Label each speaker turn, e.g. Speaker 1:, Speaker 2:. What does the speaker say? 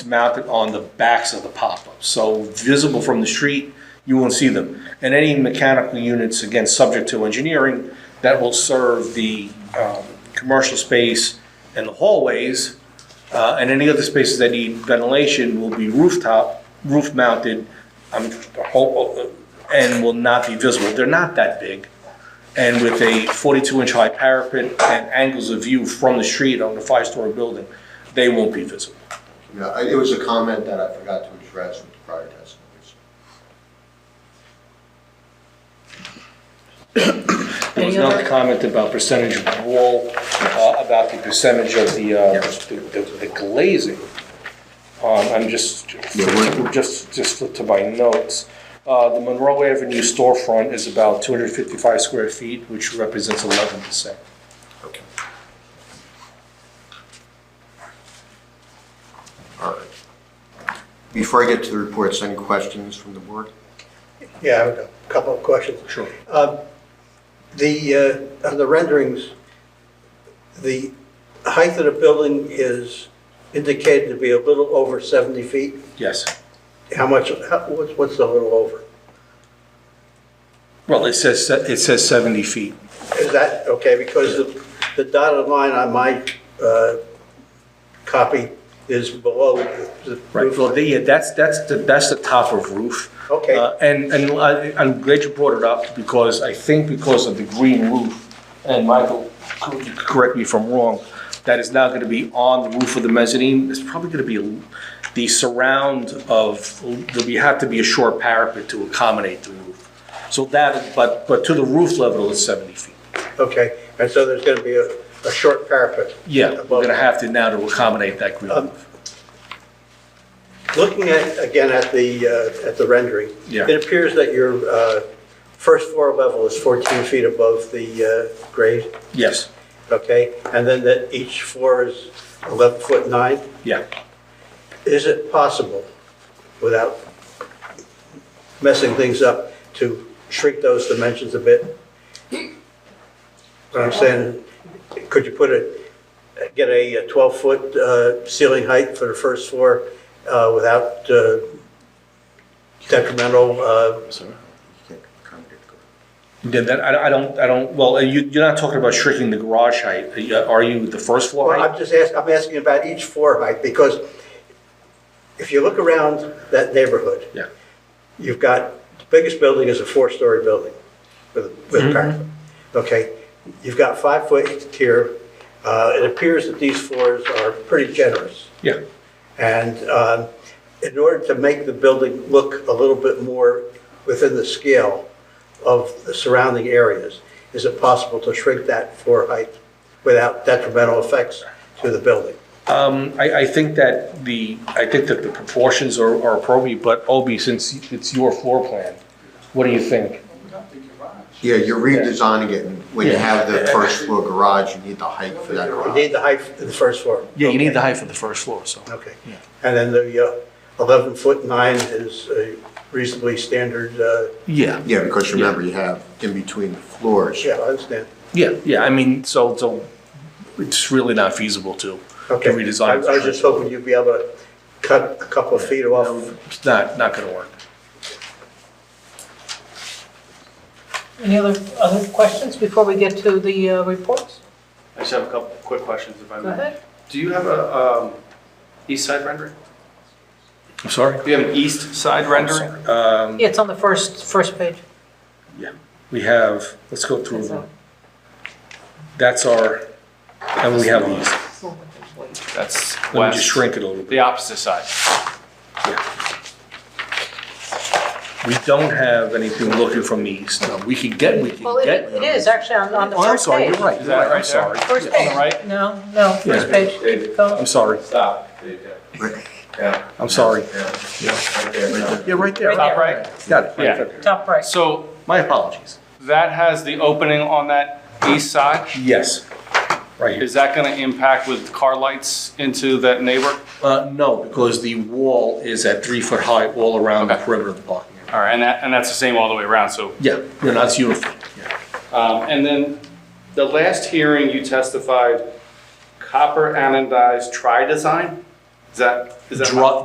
Speaker 1: mounted on the backs of the pop-ups. So visible from the street, you won't see them. And any mechanical units, again, subject to engineering, that will serve the um, commercial space and the hallways, uh, and any other spaces that need ventilation will be rooftop, roof-mounted, um, I'm, ho- uh, and will not be visible. They're not that big and with a 42-inch high parapet and angles of view from the street on the five-story building, they won't be visible.
Speaker 2: Yeah, I- it was a comment that I forgot to address with the prior testimonies.
Speaker 1: There was
Speaker 3: Any
Speaker 1: another
Speaker 3: other-
Speaker 1: comment about percentage of the wall, uh, about the percentage of the, uh, the- the the glazing. Um, I'm just, just, just flip to my notes. Uh, The Monroe Avenue storefront is about 255 square feet, which represents 11%.
Speaker 2: Okay. All right. Before I get to the reports, any questions from the board?
Speaker 4: Yeah, I have a couple of questions.
Speaker 1: Sure.
Speaker 4: Um, The, uh, on the renderings, the height of the building is indicated to be a little over 70 feet.
Speaker 1: Yes.
Speaker 4: How much, how- what's what's a little over?
Speaker 1: Well, it says, se- it says 70 feet.
Speaker 4: Is that, okay, because the the dotted line on my uh, copy is below the
Speaker 1: Right,
Speaker 4: roof
Speaker 1: well, the- yeah, that's, that's the, that's the top of roof.
Speaker 4: Okay.
Speaker 1: Uh, And, and I- I'm glad you brought it up, because I think because of the green roof, and Michael, cor- you could correct me if I'm wrong, that is now gonna be on the roof of the mezzanine, it's probably gonna be a- the surround of, there'll be, have to be a short parapet to accommodate the roof. So that, but, but to the roof level is 70 feet.
Speaker 4: Okay, and so there's going to be a, a short parapet?
Speaker 1: Yeah, we're
Speaker 4: above.
Speaker 1: gonna have to now to accommodate that green
Speaker 4: Um,
Speaker 1: roof.
Speaker 4: Looking at, again, at the, uh, at the rendering.
Speaker 1: Yeah.
Speaker 4: It appears that your uh, first floor level is 14 feet above the uh, grade,
Speaker 1: Yes,
Speaker 4: okay? And then that each floor is 11 foot 9.
Speaker 1: yeah.
Speaker 4: Is it possible, without messing things up, to shrink those dimensions a bit? What I'm saying, could you put a, get a 12-foot ceiling height for the first floor uh, without uh, detrimental, uh,
Speaker 2: Sorry? Can't accommodate the garage.
Speaker 1: Yeah, that, I, I don't, I don't, well, are you, you're not talking about shrinking the garage height, Are you- are you the first floor
Speaker 4: Well, I'm
Speaker 1: height?
Speaker 4: just asking, I'm asking about each floor height, because if you look around that neighborhood.
Speaker 1: Yeah.
Speaker 4: You've got, the biggest building is a four-story building with, with
Speaker 1: Mm-hmm.
Speaker 4: a parapet. Okay, you've got five foot here. Uh, it appears that these floors are pretty generous.
Speaker 1: Yeah,
Speaker 4: And um, in order to make the building look a little bit more within the scale of the surrounding areas, is it possible to shrink that floor height without detrimental effects to the building?
Speaker 1: um, I, I think that the, I think that the proportions are, are appropriate, but Obi, since it's your floor plan, what do you think?
Speaker 2: Yeah, you're redesigning it, and when you
Speaker 1: Yeah.
Speaker 2: have the first floor garage, you need the height for that
Speaker 4: You
Speaker 2: garage.
Speaker 4: need the height for the first floor.
Speaker 1: Yeah, you need the height for the first floor, so.
Speaker 4: Okay. And then the uh, 11-foot 9 is a reasonably standard, uh,
Speaker 1: Yeah,
Speaker 2: Yeah, because remember, you have in between the floors.
Speaker 4: yeah, I understand.
Speaker 1: yeah, yeah, I mean, so, so it's really not feasible to, to
Speaker 4: Okay. I
Speaker 1: redesign.
Speaker 4: I was just hoping you'd be able to cut a couple of feet off.
Speaker 1: It's not, not gonna work.
Speaker 3: Any other, other questions before we get to the uh, reports?
Speaker 5: I just have a couple quick questions if I
Speaker 3: Go
Speaker 5: may.
Speaker 3: ahead.
Speaker 5: Do you have a um, east side rendering? Oh,
Speaker 1: I'm sorry?
Speaker 5: Do you have an east side rendering?
Speaker 1: Um,
Speaker 3: Yeah, it's on the first, first page.
Speaker 1: we have, let's go through
Speaker 3: That's all.
Speaker 1: them. That's our, and we have these.
Speaker 5: That's
Speaker 1: Let me just
Speaker 5: west,
Speaker 1: shrink it a little bit.
Speaker 5: the opposite side.
Speaker 1: We don't have anything looking from the east. No, we could get, we could
Speaker 3: Well, it
Speaker 1: get.
Speaker 3: it is actually on, on the
Speaker 1: Oh, I'm
Speaker 3: first
Speaker 1: sorry,
Speaker 3: page.
Speaker 1: you're right,
Speaker 5: Is
Speaker 1: you're right,
Speaker 5: that
Speaker 1: I'm
Speaker 5: right there?
Speaker 1: sorry.
Speaker 3: First
Speaker 5: On the
Speaker 3: page.
Speaker 5: right?
Speaker 3: No, no, first
Speaker 1: Yeah.
Speaker 3: page. Keep going.
Speaker 1: I'm sorry,
Speaker 6: Stop.
Speaker 2: Right-
Speaker 6: Yeah.
Speaker 1: I'm sorry.
Speaker 6: Right there.
Speaker 1: Yeah, right there.
Speaker 3: Right
Speaker 5: Top right?
Speaker 1: Got it.
Speaker 5: Yeah.
Speaker 3: Top right.
Speaker 5: So
Speaker 1: My apologies.
Speaker 5: that has the opening on that east side.
Speaker 1: Yes, right here.
Speaker 5: Is that going to impact with car lights into that neighbor?
Speaker 1: Uh, no, because the wall is at three foot high all around the perimeter of the parking area.
Speaker 5: All right, and that, and that's the same all the way around, so.
Speaker 1: Yeah, no, that's uniform.
Speaker 5: um, And then the last hearing, you testified copper anodized tri-design?
Speaker 7: Is that, is that?
Speaker 5: Dri-